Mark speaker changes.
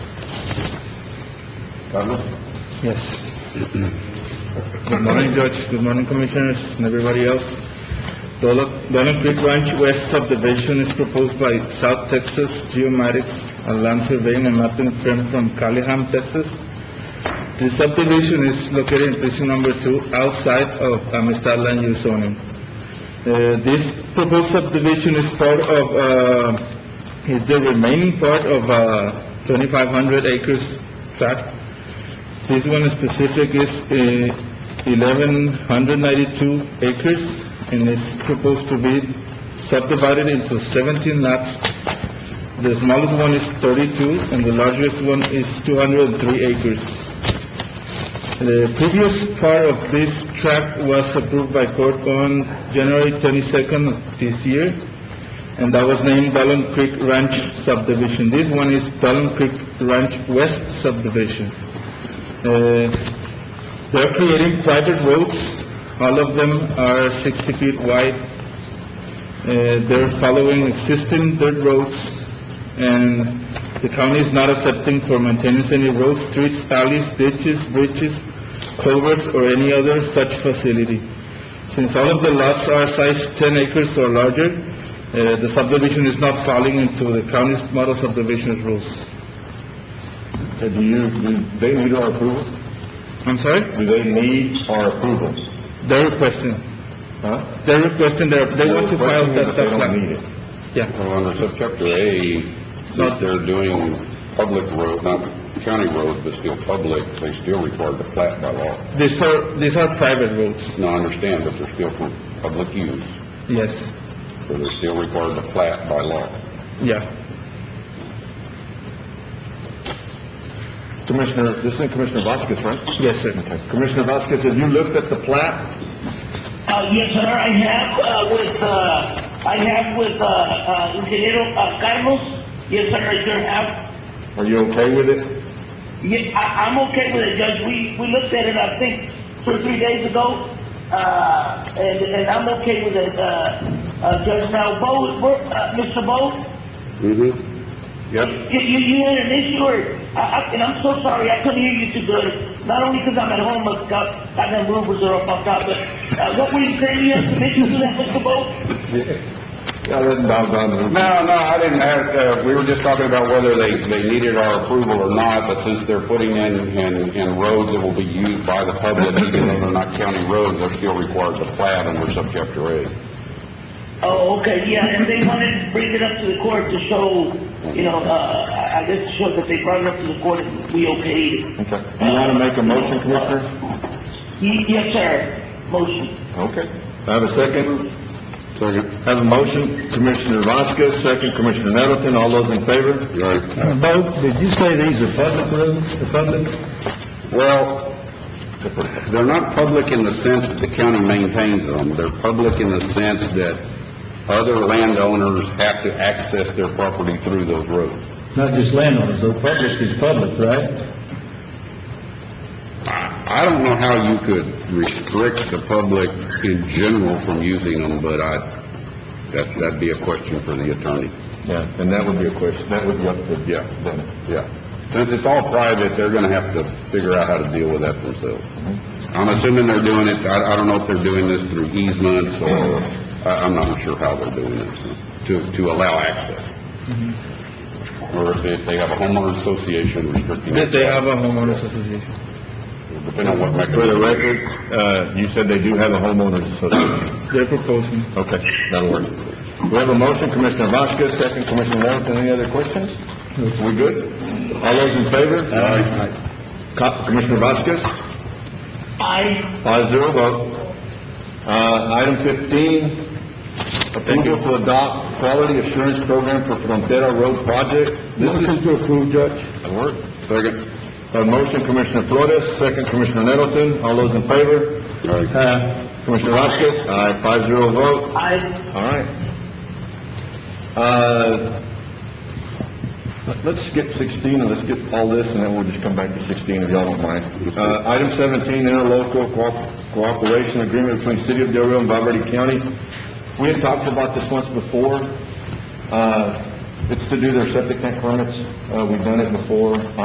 Speaker 1: Carlos?
Speaker 2: Yes. Good morning, Judge. Good morning, Commissioners, and everybody else. Dolan Dolan Creek Ranch West subdivision is proposed by South Texas Geomatics, a land surveying and mapping firm from Callahan, Texas. The subdivision is located in precinct number two, outside of Amistad Land Use zoning. Uh, This proposed subdivision is part of, uh, is the remaining part of uh, 2,500 acres tract this one specific is uh, 1,192 acres, and it's proposed to be subdivided into 17 lots. The smallest one is 32, and the largest one is 203 acres. The previous part of this tract was approved by court on January 22nd of this year, and that was named Dalton Creek Ranch subdivision. This one is Dalton Creek Ranch West subdivision. Uh, They're creating private roads, all of them are 60 feet wide. Uh, They're following existing dirt roads, and the county is not accepting for maintenance any roads, streets, alleys, ditches, bridges, culverts, or any other such facility. Since all of the lots are size 10 acres or larger, uh, the subdivision is not falling into the county's model subdivision rules.
Speaker 1: Uh, Do you, do they need our approval?
Speaker 2: I'm sorry?
Speaker 1: Do they need our approval?
Speaker 2: They're requesting.
Speaker 1: Huh?
Speaker 2: They're requesting, they they want to file
Speaker 1: Requesting
Speaker 2: that,
Speaker 1: They
Speaker 2: that
Speaker 1: don't need
Speaker 2: plan.
Speaker 1: it.
Speaker 2: Yeah,
Speaker 3: Well, under subchapter A, since they're doing public road, not county road, but still public, they still require the plat by law.
Speaker 2: these are, these are private roads,
Speaker 3: Now, I understand that they're still for public use,
Speaker 2: yes,
Speaker 3: but they're still required to plat by law.
Speaker 2: yeah.
Speaker 1: Commissioner, this is Commissioner Vasquez, right?
Speaker 2: Yes, sir.
Speaker 1: Okay. Commissioner Vasquez, have you looked at the plat?
Speaker 4: Uh, yes, sir, I have, uh, with, uh, I have with, uh, uh, Ingeniero uh, Carlos. Yes, sir, I sure have.
Speaker 1: Are you okay with it?
Speaker 4: Yeah, I, I'm okay with it, Judge. We, we looked at it, I think, two or three days ago. Uh, and, and I'm okay with it, uh, uh, Judge. Now, Bo, where- uh, Mr. Bo,
Speaker 3: Mm-hmm. Yep.
Speaker 4: you, you, you had an issue or, I, I, and I'm so sorry, I couldn't hear you too good. Not only because I'm at home, but God, I got movers are all fucked up, but, uh, what were you saying? You had some issues with that, Mr. Bo?
Speaker 1: Yeah, I didn't bow down to them.
Speaker 3: No, no, I didn't have, uh, we were just talking about whether they, they needed our approval or not, but since they're putting in, in, in roads that will be used by the public, even though they're not county roads, they're still required to plat under subchapter A.
Speaker 4: Oh, okay, yeah, and they wanted to bring it up to the court to show, you know, uh, I I guess to show that they brought it up to the court and we okayed it.
Speaker 1: Okay. Do you want to make a motion, Commissioner?
Speaker 4: Ye- Yes, sir, motion.
Speaker 1: Okay. I have a second.
Speaker 3: Second.
Speaker 1: Have a motion, Commissioner Vasquez, second Commissioner Nettleton, all those in favor?
Speaker 3: Right.
Speaker 1: Bo, did you say these are public roads, the public?
Speaker 3: Well, they're not public in the sense that the county maintains them. They're public in the sense that other landowners have to access their property through those roads.
Speaker 1: Not just landowners, though, public is public, right?
Speaker 3: I don't know how you could restrict the public in general from using them, but I, that, that'd be a question for the attorney.
Speaker 1: Yeah, and that would be a question, that would be up to, yeah, then,
Speaker 3: Yeah. Since it's all private, they're gonna have to figure out how to deal with that themselves. I'm assuming they're doing it, I, I don't know if they're doing this through easements or, I, I'm not sure how they're doing this, to, to allow access. Or if they, they have a homeowner association restricting.
Speaker 2: They, they have a homeowners association.
Speaker 3: Depending on what
Speaker 1: for the
Speaker 3: mechanism.
Speaker 1: record, uh, you said they do have a homeowners association.
Speaker 2: They're proposing.
Speaker 1: Okay, that'll work. We have a motion, Commissioner Vasquez, second Commissioner Nettleton, any other questions? We good? All those in favor? Co- Commissioner Vasquez?
Speaker 4: I,
Speaker 1: Five zero vote. Uh, item fifteen, approval to adopt quality assurance program for Frontera Road project. Motion to approve, Judge. That work.
Speaker 3: Second.
Speaker 1: A motion, Commissioner Flores, second Commissioner Nettleton, all those in favor?
Speaker 3: Aye.
Speaker 1: Aye. Commissioner Vasquez? Aye, five zero vote.
Speaker 4: I,
Speaker 1: All right. Uh, let- let's skip sixteen, and let's skip all this, and then we'll just come back to sixteen, if y'all don't mind. Uh, item seventeen, interlocal co- cooperation agreement between City of Del Rio and Valverde County. We had talked about this once before. Uh, it's to do their septic tank permits. Uh, we've done it before.